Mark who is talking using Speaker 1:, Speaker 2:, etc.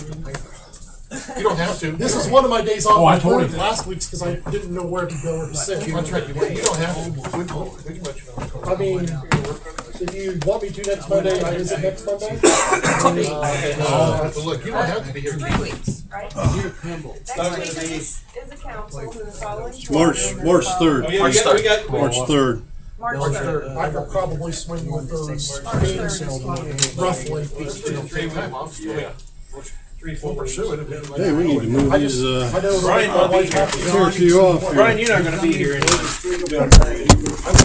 Speaker 1: You don't have to.
Speaker 2: This is one of my days off.
Speaker 3: Oh, I
Speaker 2: I
Speaker 3: totally
Speaker 2: worked
Speaker 3: did.
Speaker 2: last week's because I didn't know where to go or to sit.
Speaker 1: That's right, you don't- you don't have to. Good Lord, Pretty much. you don't.
Speaker 2: I mean, if you want me to next Monday, I visit next Monday. Uh,
Speaker 1: Uh, Look, you don't have to be here.
Speaker 4: Three weeks, right? Next week is, is a council, and the following.
Speaker 5: March, March third,
Speaker 6: Oh, yeah, we got, we got,
Speaker 5: March third.
Speaker 4: March third.
Speaker 2: I could probably swing with
Speaker 4: March third
Speaker 2: those
Speaker 4: is fine.
Speaker 2: roughly.
Speaker 1: Three time off, so yeah.
Speaker 6: three,
Speaker 1: We'll
Speaker 6: four.
Speaker 1: pursue it. and then, like,
Speaker 5: Hey, we need to move
Speaker 2: I
Speaker 5: these,
Speaker 2: just, I
Speaker 5: uh,
Speaker 2: know.
Speaker 6: Brian
Speaker 2: my
Speaker 6: will be
Speaker 2: wife
Speaker 6: here.
Speaker 2: happy.
Speaker 5: clear a few off here.
Speaker 6: Brian, you're not gonna be here.